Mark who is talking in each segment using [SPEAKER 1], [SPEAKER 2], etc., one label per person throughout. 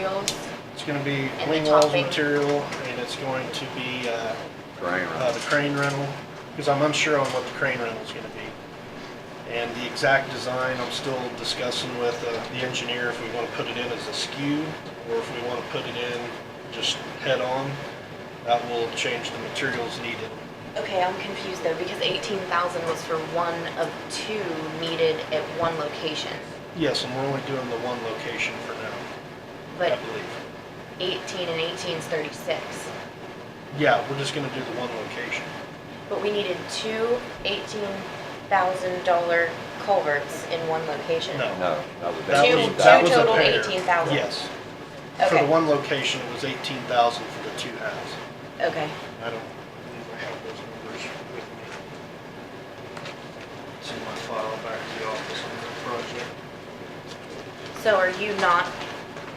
[SPEAKER 1] materials.
[SPEAKER 2] It's gonna be
[SPEAKER 1] the
[SPEAKER 2] wing walls
[SPEAKER 1] topping.
[SPEAKER 2] material, and it's going to be, uh,
[SPEAKER 3] Crane
[SPEAKER 2] uh, the
[SPEAKER 3] rental.
[SPEAKER 2] crane rental, because I'm unsure on what the crane rental's gonna be. And the exact design, I'm still discussing with uh, the engineer if we wanna put it in as a skew, or if we wanna put it in just head-on. That will change the materials needed.
[SPEAKER 1] Okay, I'm confused though, because eighteen thousand was for one of two needed at one location.
[SPEAKER 2] Yes, and we're only doing the one location for now, I
[SPEAKER 1] But
[SPEAKER 2] believe.
[SPEAKER 1] eighteen and eighteen is thirty-six.
[SPEAKER 2] Yeah, we're just gonna do the one location.
[SPEAKER 1] But we needed two eighteen thousand dollar culverts in one location.
[SPEAKER 2] No.
[SPEAKER 3] No, that was.
[SPEAKER 2] That
[SPEAKER 1] Two-
[SPEAKER 2] was-
[SPEAKER 1] two
[SPEAKER 2] that was a
[SPEAKER 1] total
[SPEAKER 2] pair.
[SPEAKER 1] 18,000.
[SPEAKER 2] Yes. For the
[SPEAKER 1] Okay.
[SPEAKER 2] one location, it was eighteen thousand for the two houses.
[SPEAKER 1] Okay,
[SPEAKER 2] I don't believe I have those numbers with me. It's in my file back at the office on the project.
[SPEAKER 1] so are you not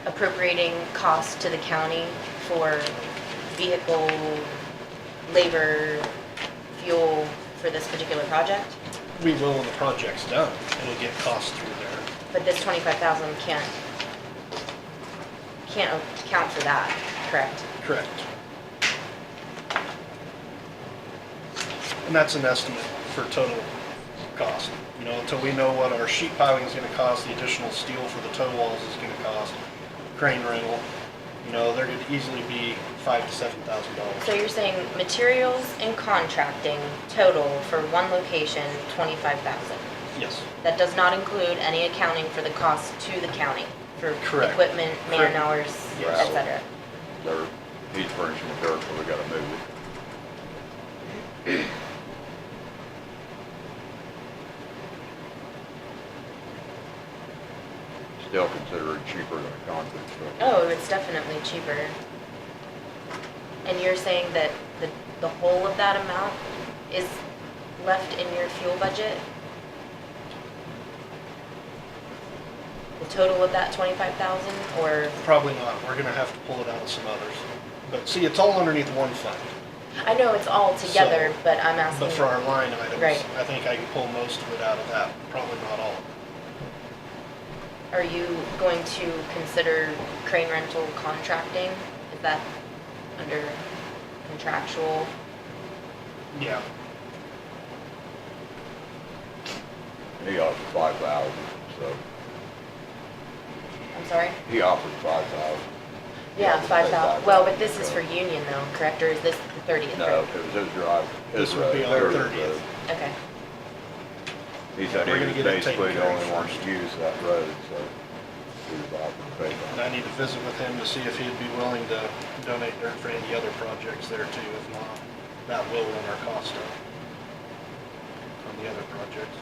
[SPEAKER 1] appropriating costs to the county for vehicle, labor, fuel for this particular project?
[SPEAKER 2] We will when the project's done. It'll get costs through there.
[SPEAKER 1] But this twenty-five thousand can't, can't account for that, correct?
[SPEAKER 2] Correct. And that's an estimate for total cost. You know, until we know what our sheet piling is gonna cost, the additional steel for the toe walls is gonna cost, crane rental, you know, there could easily be five to seven thousand
[SPEAKER 1] So
[SPEAKER 2] dollars.
[SPEAKER 1] you're saying materials and contracting total for one location, twenty-five thousand?
[SPEAKER 2] Yes,
[SPEAKER 1] That does not include any accounting for the cost to the county for
[SPEAKER 2] Correct.
[SPEAKER 1] equipment, man
[SPEAKER 2] Correct.
[SPEAKER 1] hours,
[SPEAKER 2] Yes.
[SPEAKER 1] et cetera?
[SPEAKER 3] Dirt, he's furnishing the dirt, but we gotta move it. Still considered cheaper than a concrete structure.
[SPEAKER 1] Oh, it's definitely cheaper. And you're saying that the, the whole of that amount is left in your fuel budget? The total of that twenty-five thousand, or,
[SPEAKER 2] probably not. We're gonna have to pull it out of some others. But see, it's all underneath one fund.
[SPEAKER 1] I know it's all together,
[SPEAKER 2] So-
[SPEAKER 1] but I'm asking.
[SPEAKER 2] But for our line items,
[SPEAKER 1] Right.
[SPEAKER 2] I think I can pull most of it out of that, probably not all.
[SPEAKER 1] Are you going to consider crane rental contracting? Is that under contractual?
[SPEAKER 2] Yeah.
[SPEAKER 3] He offered five thousand, so,
[SPEAKER 1] I'm sorry?
[SPEAKER 3] he offered five thousand.
[SPEAKER 1] Yeah, five thousand, well, but this is for union though, correct, or is this the thirtieth?
[SPEAKER 3] No, it was his drive. his
[SPEAKER 2] This would be
[SPEAKER 3] road,
[SPEAKER 2] on
[SPEAKER 3] their
[SPEAKER 2] 30th.
[SPEAKER 3] road.
[SPEAKER 1] Okay,
[SPEAKER 3] He said
[SPEAKER 2] We're
[SPEAKER 3] he
[SPEAKER 2] gonna
[SPEAKER 3] was
[SPEAKER 2] get it taken
[SPEAKER 3] basically the
[SPEAKER 2] care of
[SPEAKER 3] only one
[SPEAKER 2] first.
[SPEAKER 3] to use that road, so he was offering to pay for it.
[SPEAKER 2] And I need to visit with him to see if he'd be willing to donate dirt for any other projects there too. If not, that will run our cost up on the other projects.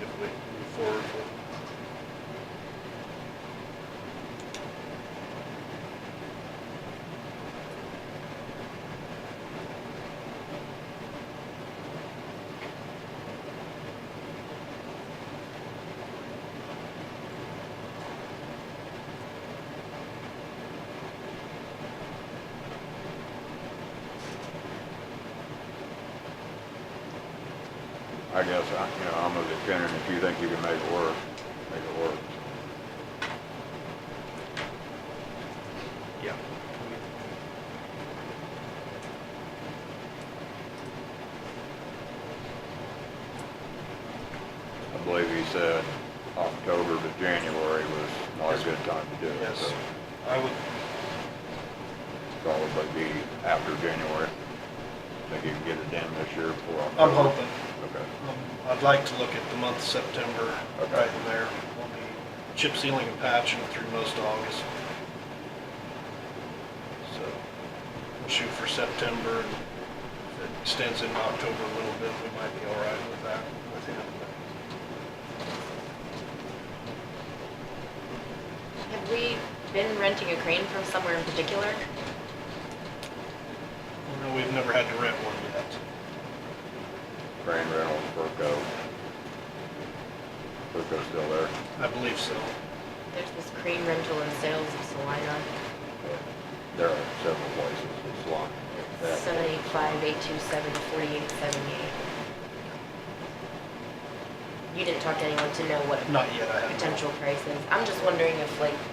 [SPEAKER 2] If we move forward with.
[SPEAKER 3] I guess, I you know, I'm of the opinion, if you think you can make it work, make it work.
[SPEAKER 2] Yeah.
[SPEAKER 3] I believe he said October to January was not a good time to do it,
[SPEAKER 2] Yes,
[SPEAKER 3] so
[SPEAKER 2] I would,
[SPEAKER 3] probably be after January. Think you can get it done this year before October?
[SPEAKER 2] I'm hoping.
[SPEAKER 3] Okay.
[SPEAKER 2] Um, I'd like to look at the month of September,
[SPEAKER 3] Okay.
[SPEAKER 2] right in there. We'll be chip sealing and patching through most of August. So we'll shoot for September and if it extends into October a little bit, we might be all right with that, with him.
[SPEAKER 1] have we been renting a crane from somewhere in particular?
[SPEAKER 2] You know, We've never had to rent one yet.
[SPEAKER 3] Crane rental, Burco. Burco's still there.
[SPEAKER 2] I believe so.
[SPEAKER 1] There's this crane rental and sales of Salina,
[SPEAKER 3] There are several places that's long.
[SPEAKER 1] seven eight five eight two seven forty-eight seventy-eight. you didn't talk to anyone to know what
[SPEAKER 2] Not yet, I haven't.
[SPEAKER 1] potential price is. I'm just wondering if like